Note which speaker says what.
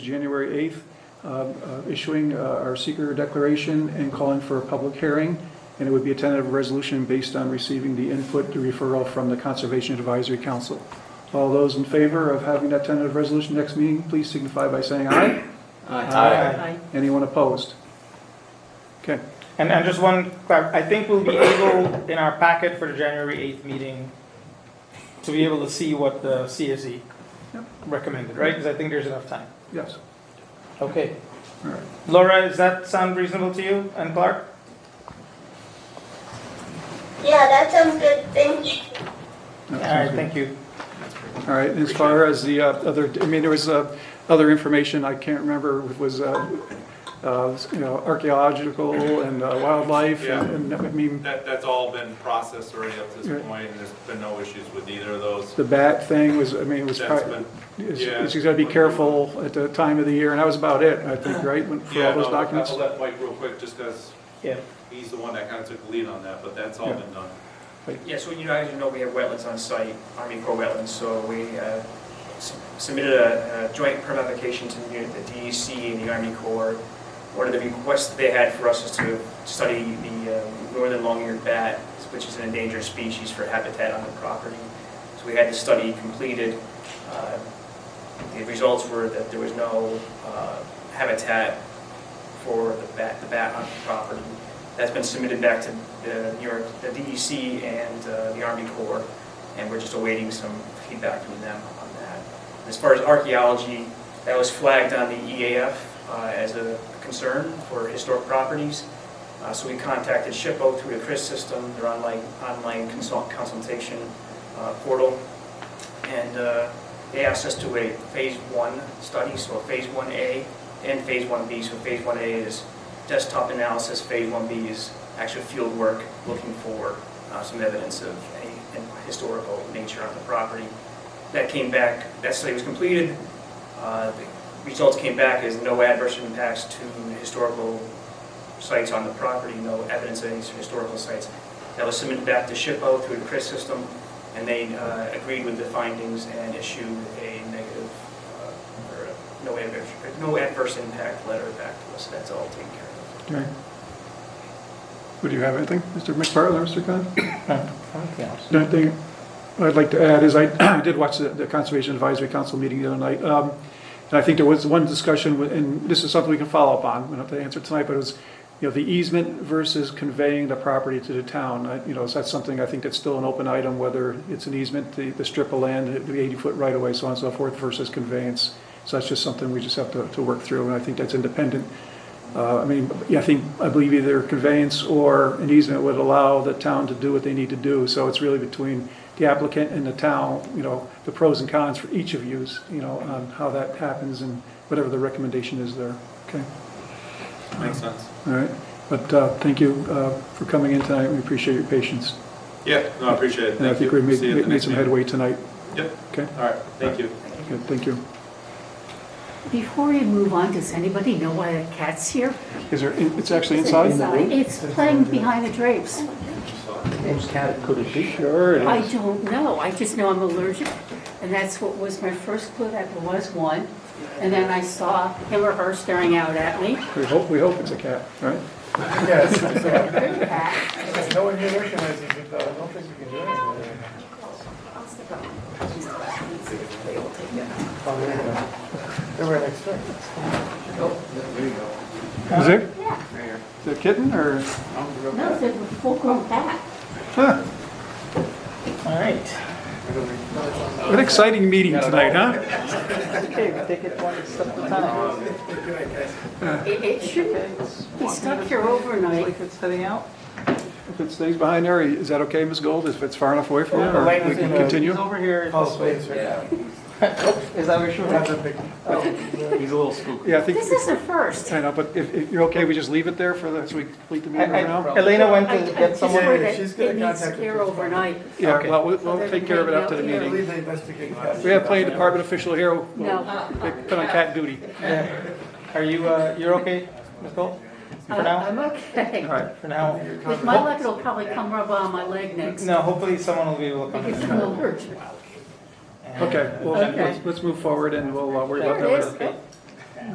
Speaker 1: January 8th, uh, uh, issuing uh, our seeker declaration and calling for a public hearing, and it would be a tentative resolution based on receiving the input, the referral from the Conservation Advisory Council. All those in favor of having that tentative resolution next meeting, please signify by saying aye.
Speaker 2: Aye.
Speaker 3: Aye.
Speaker 1: Anyone opposed? Okay,
Speaker 4: And, and just one, clar- I think we'll be able, in our packet for the January 8th meeting, to be able to see what the CSE
Speaker 1: Yep.
Speaker 4: recommended, right? Because I think there's enough time.
Speaker 1: yes,
Speaker 4: Okay.
Speaker 1: all right.
Speaker 4: Laura, does that sound reasonable to you and Clark?
Speaker 5: Yeah, that sounds good. Thank you.
Speaker 1: No,
Speaker 4: All
Speaker 1: sounds good.
Speaker 4: right, thank you.
Speaker 1: All right, as far as the uh, other, I mean, there was uh, other information, I can't remember, it was, uh, uh, you know, archaeological and uh, wildlife,
Speaker 2: Yeah.
Speaker 1: and, and, I mean,
Speaker 2: That, that's all been processed already up to
Speaker 1: Right.
Speaker 2: this point, and there's been no issues with either of those.
Speaker 1: the bat thing was, I mean, it was,
Speaker 2: That's
Speaker 1: probably
Speaker 2: been, yeah.
Speaker 1: it's, you gotta be careful at the time of the year, and that was about it, I think, right, when- for all
Speaker 2: yeah,
Speaker 1: those
Speaker 2: no,
Speaker 1: documents?
Speaker 2: I'll let Mike real quick, just because
Speaker 4: Yeah.
Speaker 2: he's the one that kind of took the lead on that, but that's all
Speaker 1: Yeah.
Speaker 2: been done.
Speaker 6: Yeah, so you know, as you know, we have wetlands on site, Army Corps wetlands, so we uh, s- submitted a a joint permit application to the the DEC and the Army Corps. One of the requests that they had for us is to study the uh, northern long-eared bat, which is an endangered species for habitat on the property. So we had the study completed. Uh, The results were that there was no uh, habitat for the bat, the bat on the property. That's been submitted back to the New York, the DEC and uh, the Army Corps, and we're just awaiting some feedback from them on that. As far as archaeology, that was flagged on the EAF uh, as a concern for historic properties. Uh, So we contacted SHPO through the CRIS system, their online, online consult- consultation uh, portal. And uh, they asked us to do a phase one study, so a phase one A and phase one B. So phase one A is desktop analysis, phase one B is actual field work, looking for uh, some evidence of any historical nature on the property. That came back, that study was completed. Uh, The Results came back as no adverse impacts to historical sites on the property, no evidence of any historical sites. That was submitted back to SHPO through the CRIS system, and they uh, agreed with the findings and issued a negative, uh, or a no adverse, no adverse impact letter back to us. That's all taken care of.
Speaker 1: Okay. Would you have anything, Mr. McPartland, Mr. Khan? The only thing I'd like to add is I did watch the- the Conservation Advisory Council meeting the other night. um, And I think there was one discussion, with- and this is something we can follow up on, we don't have to answer tonight, but it was, you know, the easement versus conveying the property to the town. I- You know, so that's something I think that's still an open item, whether it's an easement, the the strip of land, the 80-foot right-of-way, so on and so forth, versus conveyance. So that's just something we just have to to work through, and I think that's independent uh, I mean, yeah, I think, I believe either conveyance or an easement would allow the town to do what they need to do. So it's really between the applicant and the town, you know, the pros and cons for each of yous, you know, on how that happens and whatever the recommendation is there. Okay,
Speaker 2: Makes sense.
Speaker 1: all right. But uh, thank you uh, for coming in tonight. We appreciate your patience.
Speaker 2: Yeah, no, I appreciate it.
Speaker 1: And I
Speaker 2: Thank
Speaker 1: think
Speaker 2: you.
Speaker 1: we made
Speaker 2: See you at the
Speaker 1: made
Speaker 2: next
Speaker 1: some
Speaker 2: meeting.
Speaker 1: headway tonight.
Speaker 2: Yep,
Speaker 1: Okay,
Speaker 2: all right, thank you.
Speaker 1: good, thank you.
Speaker 3: Before we move on, does anybody know why the cat's here?
Speaker 1: Is there, it's actually inside?
Speaker 3: It's playing behind the drapes.
Speaker 1: Sure it
Speaker 3: I don't know, I just know I'm allergic, and that's what was my first clue, that there was one. And then I saw him or her staring out at me.
Speaker 1: We hope, we hope it's a cat, right?
Speaker 3: Cat.
Speaker 7: If no one here recognizes it, though, I don't think we can do anything. Oh, there you go. They were next door.
Speaker 1: Is it,
Speaker 3: Yeah,
Speaker 1: is it a kitten or?
Speaker 3: no, they're full-grown cat.
Speaker 1: huh.
Speaker 4: All right.
Speaker 1: What an exciting meeting tonight, huh?
Speaker 4: Okay, we take it one step at a time.
Speaker 3: It, it shouldn't be stuck here overnight.
Speaker 4: If it's heading out?
Speaker 1: If it stays behind there, is that okay, Ms. Gold, if it's far enough away from you? or
Speaker 4: Elaine
Speaker 1: We
Speaker 4: was in
Speaker 1: can
Speaker 4: the-
Speaker 1: continue?
Speaker 4: He's over here
Speaker 7: Oh,
Speaker 4: this way.
Speaker 7: please, right
Speaker 4: Is that what you're?
Speaker 7: now. That's a big,
Speaker 1: Yeah, I think,
Speaker 3: This is the first.
Speaker 1: I know, but if, if you're okay, we just leave it there for the, so we complete the meeting
Speaker 4: I-
Speaker 1: right
Speaker 4: I-
Speaker 1: now?
Speaker 4: Elena went
Speaker 3: I- I
Speaker 4: to get
Speaker 3: just
Speaker 4: someone.
Speaker 3: heard
Speaker 7: Yeah,
Speaker 3: that
Speaker 7: she's gonna
Speaker 3: It needs
Speaker 7: contact the
Speaker 3: here
Speaker 7: police.
Speaker 3: overnight.
Speaker 1: Yeah,
Speaker 4: Okay.
Speaker 1: well, we'll, we'll take care of it after the
Speaker 7: I
Speaker 1: meeting.
Speaker 7: believe they investigate cats.
Speaker 1: We have plenty of department official here, who-
Speaker 3: No.
Speaker 1: they put on cat duty.
Speaker 4: Yeah. Are you, uh, you're okay, Ms. Cole? For
Speaker 3: I-
Speaker 4: now?
Speaker 3: Uh, I'm okay.
Speaker 1: All right,
Speaker 4: For now?
Speaker 3: With my luck, it'll probably come rub on my leg next.
Speaker 4: No, hopefully someone will be able to come.
Speaker 3: Because
Speaker 4: in.
Speaker 3: I'm allergic.
Speaker 4: And-
Speaker 1: okay, well,
Speaker 3: Okay.
Speaker 1: let's, let's move forward and we'll uh, worry about
Speaker 3: There
Speaker 1: that
Speaker 3: it
Speaker 1: later.
Speaker 3: is.